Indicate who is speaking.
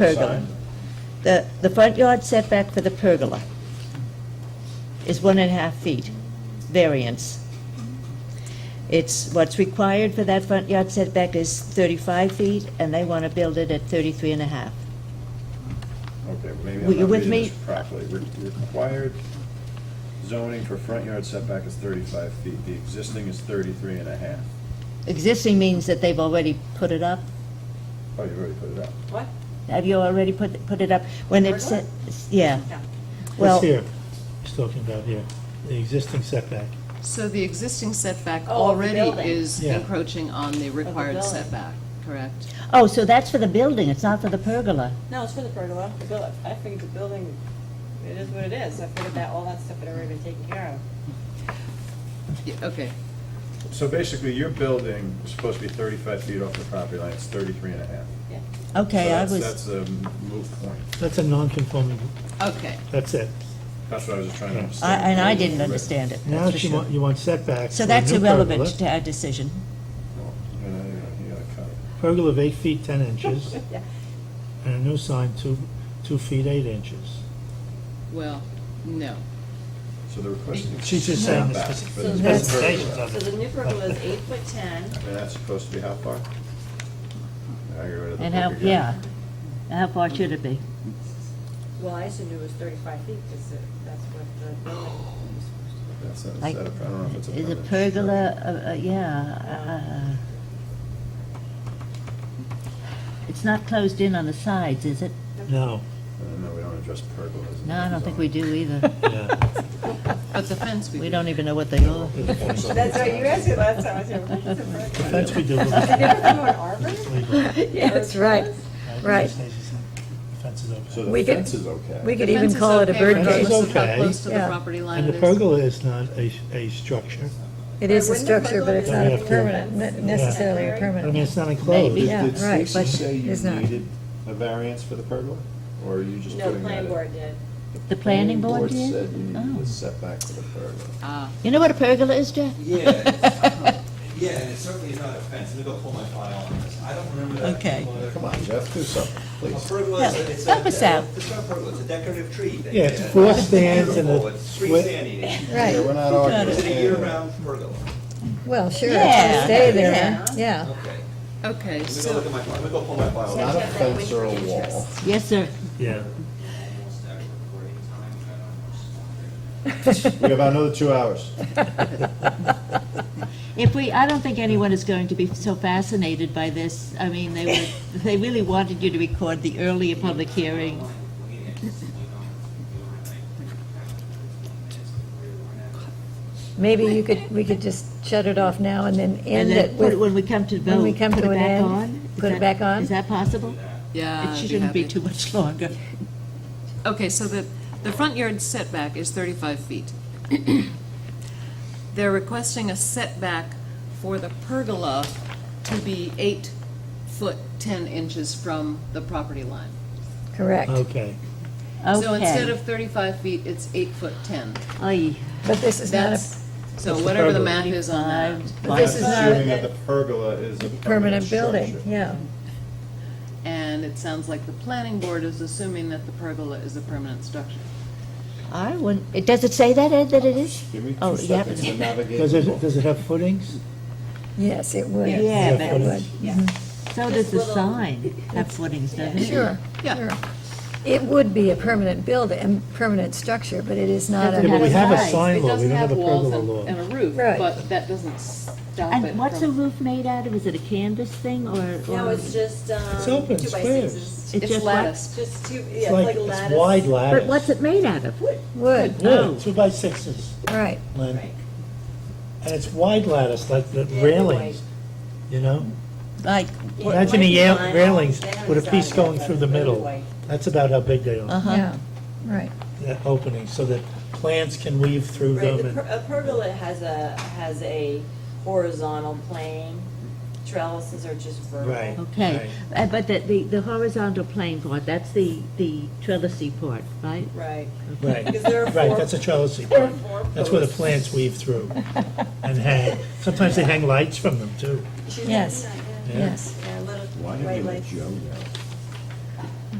Speaker 1: pergola. The, the front yard setback for the pergola is one and a half feet variance. It's, what's required for that front yard setback is 35 feet, and they want to build it at 33 and a half.
Speaker 2: Okay, well,
Speaker 1: Were
Speaker 2: maybe
Speaker 1: you
Speaker 2: I'm not
Speaker 1: with
Speaker 2: reading
Speaker 1: me?
Speaker 2: this properly. Re- Required zoning for front yard setback is thirty-five feet, the existing is thirty-three and a half.
Speaker 1: Existing means that they've already put it up.
Speaker 2: Oh, you already put it up.
Speaker 3: What?
Speaker 1: Have you already put, put it up? When it
Speaker 3: Pergola?
Speaker 1: said, yeah,
Speaker 3: No.
Speaker 1: well,
Speaker 4: What's here, he's talking about here, the existing setback.
Speaker 5: So the existing setback
Speaker 3: Oh, of the
Speaker 5: already
Speaker 3: building.
Speaker 5: is
Speaker 4: Yeah.
Speaker 5: encroaching on the required
Speaker 3: building.
Speaker 5: setback, correct?
Speaker 1: oh, so that's for the building, it's not for the pergola.
Speaker 3: No, it's for the pergola. The buil- I figured the building, it is what it is. I figured that all that stuff had already been taken care of.
Speaker 5: Yeah, Okay,
Speaker 2: So basically, your building is supposed to be thirty-five feet off the property line, it's thirty-three and a half.
Speaker 3: Yeah.
Speaker 1: Okay, I
Speaker 2: So
Speaker 1: was,
Speaker 2: that's- That's a moot point.
Speaker 4: That's a non-conforming,
Speaker 5: okay.
Speaker 4: that's it.
Speaker 2: That's what I was just trying to understand.
Speaker 1: I- and I didn't understand it,
Speaker 4: Now
Speaker 1: that's for
Speaker 4: she
Speaker 1: sure.
Speaker 4: want, you want setbacks.
Speaker 1: So
Speaker 4: for a
Speaker 1: that's
Speaker 4: new
Speaker 1: irrelevant
Speaker 4: pergola.
Speaker 1: to our decision.
Speaker 2: Well, you know, you gotta cut it.
Speaker 4: Pergola of eight feet, 10 inches,
Speaker 3: Yeah.
Speaker 4: and a new sign, two, two feet, eight inches.
Speaker 5: Well, no.
Speaker 2: So the request. is
Speaker 4: She's just saying the
Speaker 2: setback,
Speaker 4: speci-
Speaker 2: but
Speaker 3: So
Speaker 2: it's
Speaker 3: that's-
Speaker 4: specifications of
Speaker 3: So the
Speaker 4: it.
Speaker 3: new pergola is eight foot ten.
Speaker 2: And that's supposed to be how far? Now you're out of the
Speaker 1: And how,
Speaker 2: book again.
Speaker 1: yeah, how far should it be?
Speaker 3: Well, I assumed it was thirty-five feet because that's what the building was
Speaker 2: That's
Speaker 3: supposed
Speaker 2: not,
Speaker 1: Like,
Speaker 2: is that a- I don't know if it's a.
Speaker 1: Is a
Speaker 2: permanent
Speaker 1: pergola,
Speaker 2: structure.
Speaker 1: uh, uh, yeah, uh, it's not closed in on the sides, is it?
Speaker 4: No,
Speaker 2: Uh, No, we don't address pergolas. in
Speaker 1: No, I don't think we
Speaker 2: zoning.
Speaker 1: do either.
Speaker 4: yeah.
Speaker 5: But the fence we.
Speaker 1: We
Speaker 5: did.
Speaker 1: don't even know what they are.
Speaker 3: to. That's right. You asked me last time. I said, what is a pergola?
Speaker 4: That's we do.
Speaker 3: Did they ever do an arbor?
Speaker 6: Yeah, that's right. Right.
Speaker 4: Fence is
Speaker 2: So
Speaker 4: okay.
Speaker 2: the
Speaker 6: We could-
Speaker 2: fence is okay.
Speaker 6: We
Speaker 5: The
Speaker 6: could even
Speaker 5: fence is
Speaker 6: call it a
Speaker 5: okay,
Speaker 6: bird
Speaker 4: Fence is
Speaker 5: regardless of
Speaker 6: cage.
Speaker 5: how
Speaker 4: okay.
Speaker 5: close to the
Speaker 6: Yeah.
Speaker 5: property line
Speaker 4: And the
Speaker 5: it is.
Speaker 4: pergola is not a, a structure.
Speaker 6: It is a
Speaker 3: Wouldn't the
Speaker 6: structure, but
Speaker 3: pergola
Speaker 6: it's
Speaker 3: be
Speaker 6: not
Speaker 4: Yeah.
Speaker 6: permanent, ne- necessarily
Speaker 3: Temporary?
Speaker 4: I
Speaker 6: a
Speaker 4: mean,
Speaker 6: permanent.
Speaker 4: it's not enclosed.
Speaker 1: Maybe.
Speaker 6: Yeah,
Speaker 2: Did
Speaker 6: right,
Speaker 2: Stacy
Speaker 6: but
Speaker 2: say you
Speaker 6: it's not.
Speaker 2: needed a variance for the pergola? Or are you just
Speaker 3: No, the
Speaker 2: putting that
Speaker 3: planning
Speaker 2: in?
Speaker 3: board did.
Speaker 1: The planning board
Speaker 2: The
Speaker 1: did?
Speaker 2: said you needed
Speaker 1: Oh.
Speaker 2: a setback for the pergola.
Speaker 5: Ah,
Speaker 1: You know what a pergola is, Jeff?
Speaker 7: Yeah. Yeah, and it certainly is not a fence, let me go pull my file on this, I don't remember that.
Speaker 1: Okay.
Speaker 7: particular-
Speaker 2: Come on, Jeff, do something,
Speaker 7: A
Speaker 2: please.
Speaker 7: pergola is a- it's a-
Speaker 1: Help us out.
Speaker 7: It's not a pergola, it's a decorative tree. that-
Speaker 4: Yeah, it's four stands and a
Speaker 7: Beautiful, Oh, it's three
Speaker 4: swi-
Speaker 7: stand eating.
Speaker 2: Yeah, We're
Speaker 6: Right,
Speaker 2: not
Speaker 7: Is it a
Speaker 2: arguing.
Speaker 7: year-round pergola?
Speaker 6: well, sure, it's
Speaker 1: Yeah.
Speaker 6: gonna stay there,
Speaker 1: Yeah.
Speaker 6: yeah.
Speaker 7: Okay,
Speaker 5: okay,
Speaker 7: let me go
Speaker 5: so,
Speaker 7: look at my, file. let me go pull my file.
Speaker 2: It's
Speaker 7: up.
Speaker 2: not a fence or a wall.
Speaker 1: Yes, sir.
Speaker 4: Yeah.
Speaker 2: We have another two hours.
Speaker 1: If we, I don't think anyone is going to be so fascinated by this. I mean, they were, they really wanted you to record the earlier public hearing.
Speaker 6: Maybe you could, we could just shut it off now and then
Speaker 1: And
Speaker 6: end it
Speaker 1: then put it when
Speaker 6: with,
Speaker 1: we come to vote.
Speaker 6: when we come
Speaker 1: put
Speaker 6: to
Speaker 1: it
Speaker 6: an
Speaker 1: back
Speaker 6: end,
Speaker 1: on? Is
Speaker 6: put it
Speaker 1: that-
Speaker 6: back on?
Speaker 1: Is that possible?
Speaker 5: yeah.
Speaker 1: It
Speaker 5: I'd be
Speaker 1: shouldn't be
Speaker 5: happy.
Speaker 1: too much longer.
Speaker 5: Okay, so the, the front yard setback is 35 feet. They're requesting a setback for the pergola to be eight foot 10 inches from the property line.
Speaker 6: correct.
Speaker 4: Okay.
Speaker 1: Okay.
Speaker 5: So instead of 35 feet, it's eight foot 10.
Speaker 1: Oy.
Speaker 6: But this is not
Speaker 5: That's,
Speaker 6: a
Speaker 5: so
Speaker 4: That's the
Speaker 5: whatever the
Speaker 4: pergola.
Speaker 5: math is on that.
Speaker 6: But this is not-
Speaker 2: Assuming that the pergola is a permanent
Speaker 6: permanent building,
Speaker 2: structure.
Speaker 6: yeah.
Speaker 5: And it sounds like the planning board is assuming that the pergola is a permanent structure.
Speaker 1: I wouldn't, it- does it say that, Ed, that it is?
Speaker 2: Give me
Speaker 1: Oh,
Speaker 2: two
Speaker 1: yeah.
Speaker 2: seconds to navigate.
Speaker 4: Does it,
Speaker 2: Google.
Speaker 4: does it have footings?
Speaker 6: Yes, it would.
Speaker 3: Yeah.
Speaker 1: Yeah,
Speaker 6: It
Speaker 1: but-
Speaker 6: would. Mm-hmm.
Speaker 1: So
Speaker 3: This
Speaker 1: does the
Speaker 3: little-
Speaker 1: sign have footings, doesn't it?
Speaker 6: Sure,
Speaker 5: Yeah.
Speaker 6: sure. It would be a permanent building, a permanent structure, but it is not
Speaker 1: Doesn't
Speaker 4: Yeah, but we
Speaker 6: a,
Speaker 1: have-
Speaker 4: have a
Speaker 1: size.
Speaker 4: sign
Speaker 5: It
Speaker 4: law, we
Speaker 5: doesn't
Speaker 4: don't have
Speaker 5: have
Speaker 4: a
Speaker 5: walls
Speaker 4: pergola
Speaker 5: and
Speaker 4: law.
Speaker 5: and a roof,
Speaker 6: Right.
Speaker 5: but that doesn't stop it
Speaker 1: And what's the
Speaker 5: from-
Speaker 1: roof made out of? Is it a canvas thing or?
Speaker 3: No,
Speaker 1: or-
Speaker 3: it's just, um,
Speaker 4: It's
Speaker 3: two by
Speaker 4: open, squares.
Speaker 1: It's
Speaker 3: sixes.
Speaker 5: It's
Speaker 1: just what?
Speaker 5: latticed.
Speaker 3: Just two, yeah,
Speaker 4: It's
Speaker 3: it's like
Speaker 4: like,
Speaker 3: a
Speaker 4: it's
Speaker 3: lattice.
Speaker 4: wide lattice.
Speaker 1: But what's it made out of?
Speaker 6: would,
Speaker 4: Yeah, two by sixes,
Speaker 6: right.
Speaker 4: Lynn.
Speaker 3: Right.
Speaker 4: And it's wide lattice, like the
Speaker 3: Yeah,
Speaker 4: railings, you know?
Speaker 1: Like,
Speaker 3: Yeah, it
Speaker 4: Imagine
Speaker 3: might
Speaker 4: the
Speaker 3: be
Speaker 4: yale-
Speaker 3: vinyl.
Speaker 4: railings
Speaker 3: They haven't
Speaker 4: with a piece
Speaker 3: decided yet,
Speaker 4: going
Speaker 3: but
Speaker 4: through the
Speaker 3: it'll be
Speaker 4: middle.
Speaker 3: white.
Speaker 4: That's about how big they are,
Speaker 1: uh-huh.
Speaker 6: Yeah, right.
Speaker 4: that opening, so that plants can weave through
Speaker 3: Right,
Speaker 4: them.
Speaker 3: the
Speaker 4: and-
Speaker 3: per- a pergola has a, has a horizontal plane, trellises are just
Speaker 4: Right.
Speaker 3: vertical.
Speaker 1: Okay, Uh, but the, the, the horizontal plane part, that's the, the trellisy part, right?
Speaker 3: Right.
Speaker 4: Right,
Speaker 3: Because there are
Speaker 4: right,
Speaker 3: four-
Speaker 4: that's a trellis
Speaker 3: there are
Speaker 4: part.
Speaker 3: four
Speaker 4: That's where the
Speaker 3: posts.
Speaker 4: plants weave through and hang. Sometimes they hang lights from them, too.
Speaker 3: She's
Speaker 6: Yes.
Speaker 3: like,
Speaker 4: Yeah.
Speaker 6: Yes.
Speaker 3: Yeah, little
Speaker 2: Why did
Speaker 3: white
Speaker 2: you let
Speaker 3: lights.
Speaker 2: Joe go?